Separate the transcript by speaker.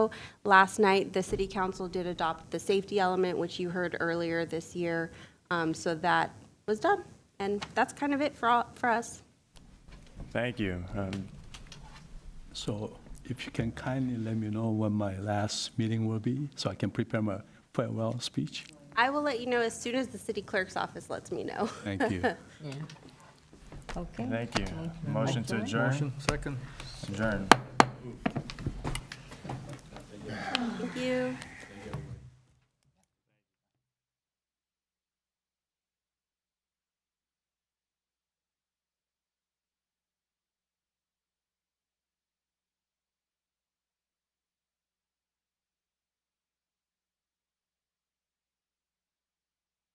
Speaker 1: Last night, the city council did adopt the safety element, which you heard earlier this year. Um, So that was done, and that's kind of it for, all- for us.
Speaker 2: Thank you. Um,
Speaker 3: So if you can kindly let me know when my last meeting will be, so I can prepare my farewell speech.
Speaker 1: I will let you know as soon as the city clerk's office lets me know.
Speaker 3: Thank you.
Speaker 4: Yeah. Okay.
Speaker 2: Thank you. Motion to adjourn?
Speaker 5: Motion, second.
Speaker 2: Adjourn.
Speaker 1: Thank you.